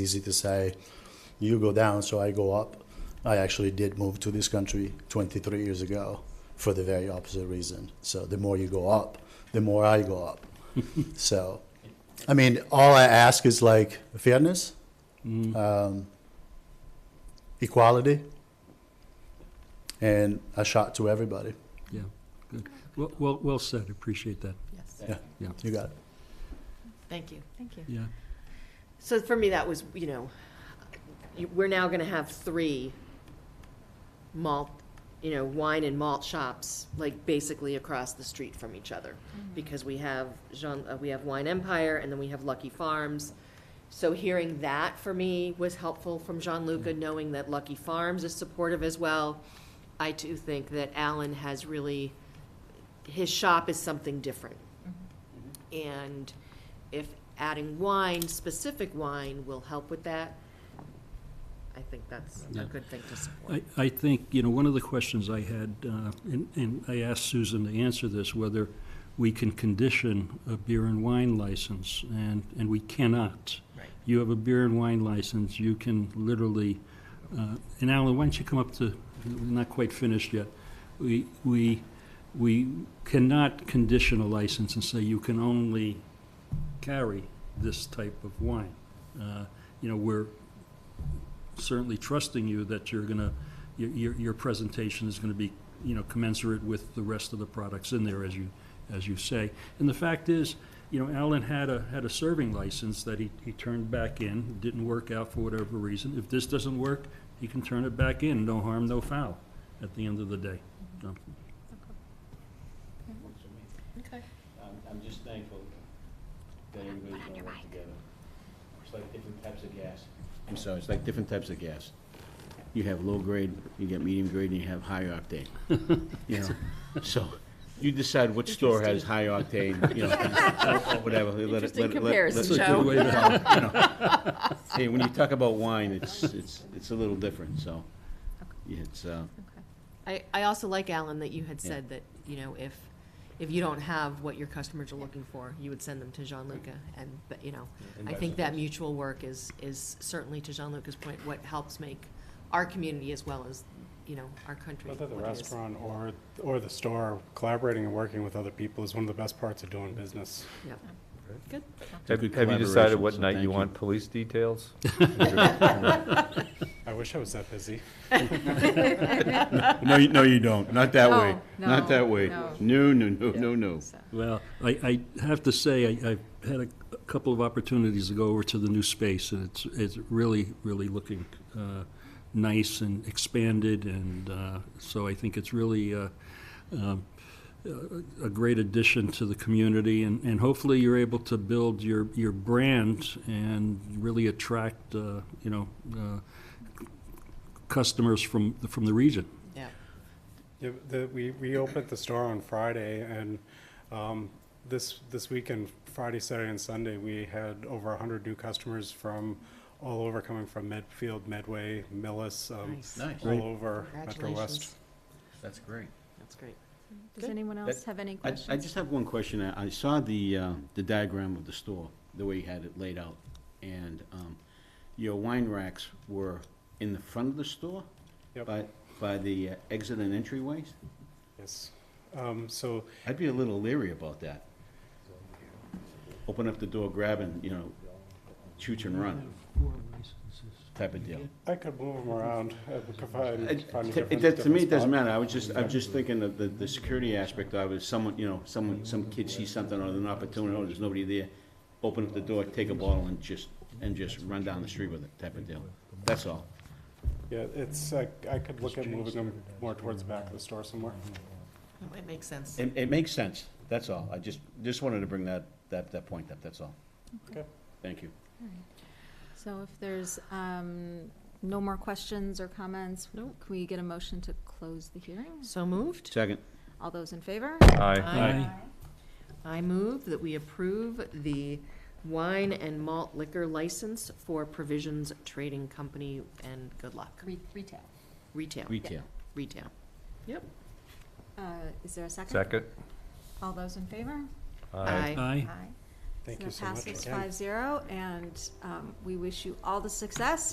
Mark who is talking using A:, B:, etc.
A: easy to say, you go down, so I go up. I actually did move to this country 23 years ago for the very opposite reason. So the more you go up, the more I go up. so, I mean, all I ask is like fairness, um, equality, and a shot to everybody.
B: Yeah, good. Well, well, well said, appreciate that,
C: Yes,
A: Yeah,
B: Yeah.
A: you got it.
C: thank you. Thank you.
B: yeah.
C: So for me, that was, you know, you- we're now gonna have three malt, you know, wine and malt shops, like basically across the street from each other. Because we have Jean, uh, we have Wine Empire and then we have Lucky Farms. So hearing that for me was helpful from Jean Luca, knowing that Lucky Farms is supportive as well. I too think that Alan has really, his shop is something different. And if adding wine, specific wine, will help with that, I think that's a
B: Yeah.
C: good thing to support.
B: I, I think, you know, one of the questions I had, uh, and, and I asked Susan to answer this, whether we can condition a beer and wine license, and, and we cannot.
C: Right.
B: You have a beer and wine license, you can literally, uh, and Alan, why don't you come up to, we're not quite finished yet. We, we, we cannot condition a license and say you can only carry this type of wine. Uh, You know, we're certainly trusting you that you're gonna, your, your, your presentation is gonna be, you know, commensurate with the rest of the products in there, as you, as you say. And the fact is, you know, Alan had a, had a serving license that he, he turned back in, It didn't work out for whatever reason. If this doesn't work, he can turn it back in, no harm, no foul, at the end of the day. So,
D: Works for me.
C: Okay.
D: I'm, I'm just thankful that everybody's gonna work together. It's like different types of gas. I'm sorry, it's like different types of gas. You have low grade, you get medium grade, and you have high octane. You know, so you decide what store has high octane, you know, or whatever. Let it- let it-
C: Interesting
D: let it-
C: comparison,
D: let
B: That's
D: it-
B: a good way to-
D: you know. Hey, when you talk about wine, it's, it's, it's a little different, so it's, uh,
C: I, I also like, Alan, that you had
D: Yeah.
C: said that, you know, if, if you don't have what your customers are looking for, you would send them to Gianluca, and, but, you know,
D: And
C: I
D: vice
C: think that
D: versa.
C: mutual work is, is certainly, to Gianluca's point, what helps make our community as well as, you know, our country
E: Whether the
C: what it is.
E: restaurant or, or the store, collaborating and working with other people is one of the best parts of doing business.
C: Yeah. Good.
D: It's a
F: Have
D: good
F: have you decided
D: collaboration,
F: what
D: so
F: night
D: thank
F: you
D: you.
F: want police details?
E: I wish I was that busy.
D: No, you, no, you don't. Not that way.
G: No,
D: Not that way.
G: no.
D: No, no, no, no, no.
B: Well, I, I have to say, I, I've had a a couple of opportunities to go over to the new space, and it's, it's really, really looking uh, nice and expanded, and uh, so I think it's really uh, um, a a great addition to the community, and, and hopefully you're able to build your, your brand and really attract, uh, you know, uh, customers from, from the region.
C: Yeah.
E: Yeah, the- We, we opened the store on Friday, and um, this, this weekend, Friday, Saturday, and Sunday, we had over 100 new customers from all over, coming from Medfield, Medway, Millis, um,
C: Nice.
D: Nice.
E: all over Metro West.
C: Congratulations.
D: That's great.
C: That's great.
G: Does anyone else have any
D: I,
G: questions?
D: I just have one question. I, I saw the, uh, the diagram of the store, the way you had it laid out. And, um, your wine racks were in the front of the store?
E: Yep.
D: By, by the uh, exit and entryways?
E: Yes. Um, So
D: I'd be a little leery about that. Open up the door, grab and, you know, chooch and run type of deal.
E: I could move them around. uh, I could find-
D: It,
E: find a
D: it-
E: different-
D: that- to me, it
E: different
D: doesn't
E: spot.
D: matter, I was just, I'm just thinking of the, the security aspect of it, someone, you know, someone, some kid sees something or an opportunity, oh, there's nobody there, open up the door, take a bottle and just, and just run down the street with it, type of deal, that's all.
E: Yeah, it's, uh, I could look at moving them more towards the back of the store somewhere.
C: That might make sense.
D: It, it makes sense, that's all, I just, just wanted to bring that, that, that point up, that's all.
E: Okay.
D: Thank you.
G: So if there's um, no more questions or comments, can we get a motion to close the hearing?
C: So moved.
D: Second.
G: All those in favor?
F: Aye.
C: I move that we approve the wine and malt liquor license for Provisions Trading Company and good luck,
G: Retail.
C: retail,
D: Retail.
C: retail. Yep.
G: Uh, Is there a second?
F: Second?
G: All those in favor?
C: Aye.
B: Aye.
G: Aye.
E: Thank
G: So
E: you
G: that
E: so much.
G: passes
E: again.
G: five zero, and um, we wish you all the success